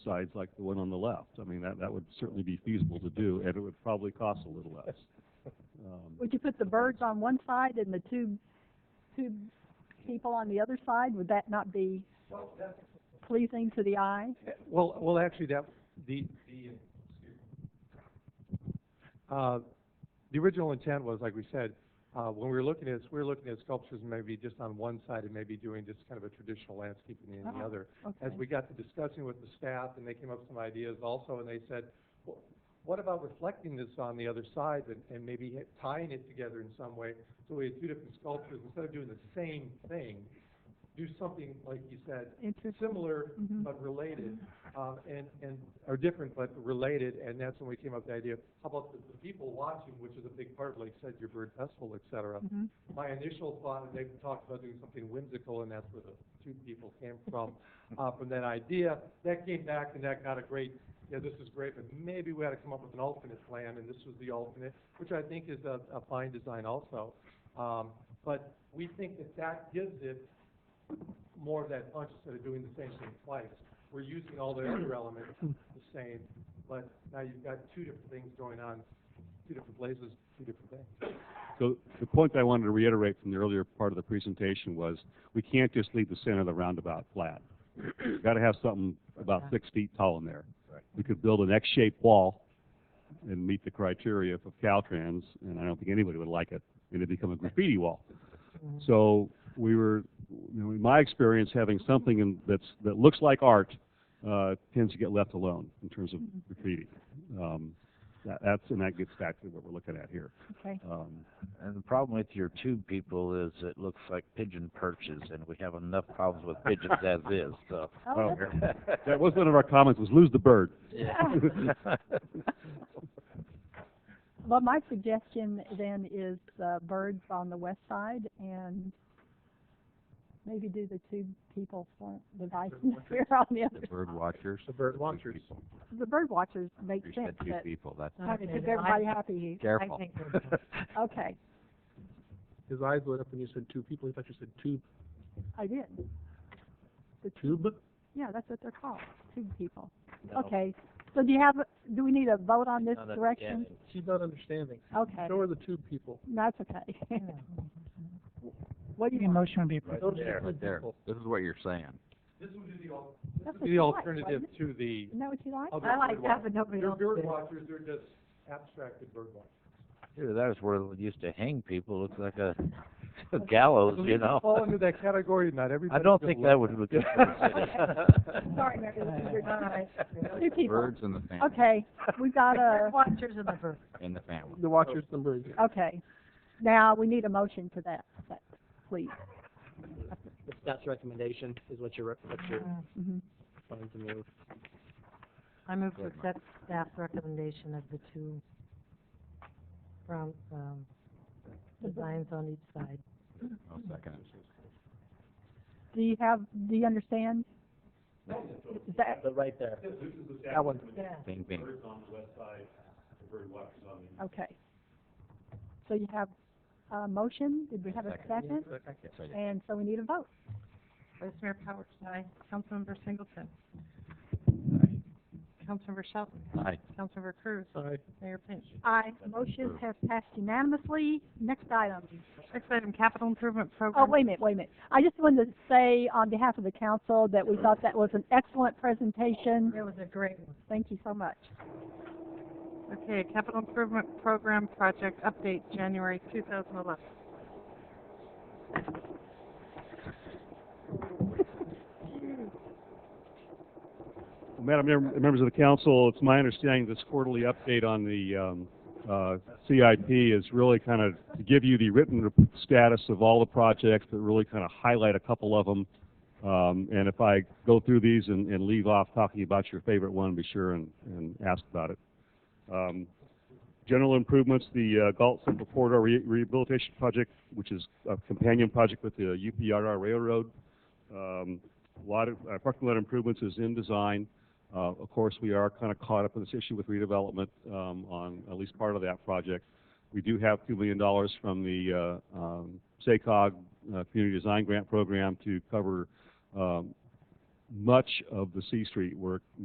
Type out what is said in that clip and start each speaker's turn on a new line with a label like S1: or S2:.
S1: sides like the one on the left. I mean, that, that would certainly be feasible to do, and it would probably cost a little less. Um,
S2: Would you put the birds on one side and the two, two people on the other side? Would that not be pleasing to the eye?
S3: Well, well, actually, that, the, the, uh, the original intent was, like we said, uh, when we were looking at, this, we were looking at sculptures maybe just on one side and maybe doing just kind of a traditional landscaping in the
S2: Oh,
S3: other. As
S2: Okay.
S3: we got to discussing with the staff, and they came up with some ideas also, and they said, "Wh- what about reflecting this on the other side and, and maybe hit- tying it together in some way? So we had two different sculptures, instead of doing the same thing, do something, like you said,
S2: Interesting.
S3: similar
S2: Mhm.
S3: but related, um, and, and, or different but related, and that's when we came up with the idea, how about the, the people watching, which is a big part, like you said, your bird festival, et cetera.
S2: Mhm.
S3: My initial thought, and they've talked about doing something whimsical, and that's where the two people came from, uh, from that idea, that came back and that got a great, yeah, this is great, but maybe we ought to come up with an alternate plan, and this was the alternate, which I think is a, a fine design also. Um, but we think that that gives it more of that punch instead of doing the same thing twice. We're using all the other elements the same, but now you've got two different things going on, two different places, two different things.
S1: So the point that I wanted to reiterate from the earlier part of the presentation was, we can't just leave the center of the roundabout flat. We've Got to have something about six feet tall in there.
S4: Right.
S1: We could build an X-shaped wall and meet the criteria of Caltrans, and I don't think anybody would like it, and it'd become a graffiti wall. So we were, you know, in my experience, having something in, that's, that looks like art, uh, tends to get left alone in terms of graffiti. Um, that, that's, and that gets back to what we're looking at here.
S2: Okay.
S1: Um,
S4: And the problem with your tube people is it looks like pigeon perches, and we have enough problems with pigeons as is, so.
S2: Oh,
S1: Oh. That was one of our comments, was lose the bird.
S4: Yeah.
S2: well, my suggestion then is, uh, birds on the west side and maybe do the two people for the vice here on the other.
S4: Bird watchers.
S3: The bird watchers.
S2: The bird watchers make
S4: You
S2: sense,
S4: said two
S2: but
S4: people, that's
S2: how to keep everybody happy.
S4: careful.
S5: think
S2: Okay,
S6: His eyes lit up when you said two people. He thought you said tube.
S2: I did. The
S6: Tube?
S2: Yeah, that's what they're called, two people. Okay, so do you have, a- do we need a vote on this direction?
S6: She's not understanding.
S2: Okay,
S6: Show her the tube people.
S2: that's okay. What do you want?
S6: Show her the tube people.
S4: This is what you're saying.
S3: This would be the al- this
S2: That's
S3: would
S2: what
S3: be the
S2: you like,
S3: alternative
S2: wasn't
S3: to the
S2: Isn't that what you like?
S3: other bird watchers.
S5: nobody
S3: They're bird watchers, they're just abstracted bird watchers.
S4: Dude, that was where they used to hang people, looks like a a gallows, you know?
S3: Fall into that category, not everybody.
S4: I don't think that would look good for the city.
S2: Sorry, Mary, this is your time. Two people.
S4: and the family.
S2: Okay, we've got a,
S5: Watchers and the bird.
S4: And the family.
S6: The watchers, the birds.
S2: okay. Now, we need a motion for that, that- please.
S7: the staff's recommendation is what you're, what you're
S2: Mhm.
S7: wanting to move.
S5: Mm-hmm. I move to
S4: Good,
S5: accept staff's recommendation of the two front, um, designs on each side.
S2: Do you have, do you understand? Is that,
S7: But right there.
S3: That one.
S5: Yeah.
S4: Bing, bing.
S2: okay. So you have a motion, did we have a second? And so we need a vote.
S5: Vice Mayor Powers, aye. Councilmember Singleton. Councilmember Shelton.
S4: Aye.
S5: Councilmember Cruz.
S3: Aye.
S5: Mayor Pinch.
S2: Aye, motion has passed unanimously. Next item.
S5: Next item, capital improvement
S2: Oh,
S5: program.
S2: wait a minute, wait a minute. I just wanted to say on behalf of the council that we thought that was an excellent presentation.
S5: That was a great one.
S2: Thank you so much.
S5: Okay, capital improvement program project update, January two thousand eleven.
S1: Madam Mayor, members of the council, it's my understanding this quarterly update on the um, uh, CIP is really kind of to give you the written rep- status of all the projects, but really kind of highlight a couple of them. Um, And if I go through these and and leave off talking about your favorite one, be sure and and ask about it. Um, General improvements, the uh, Galt Central Corridor Re- Rehabilitation Project, which is a companion project with the UPRR Railroad. Um, a lot of, uh, parking lot improvements is in design. Uh, of course, we are kind of caught up in this issue with redevelopment, um, on at least part of that project. We do have two million dollars from the, uh, um, SACOG, uh, Community Design Grant Program to cover, um, much of the C Street work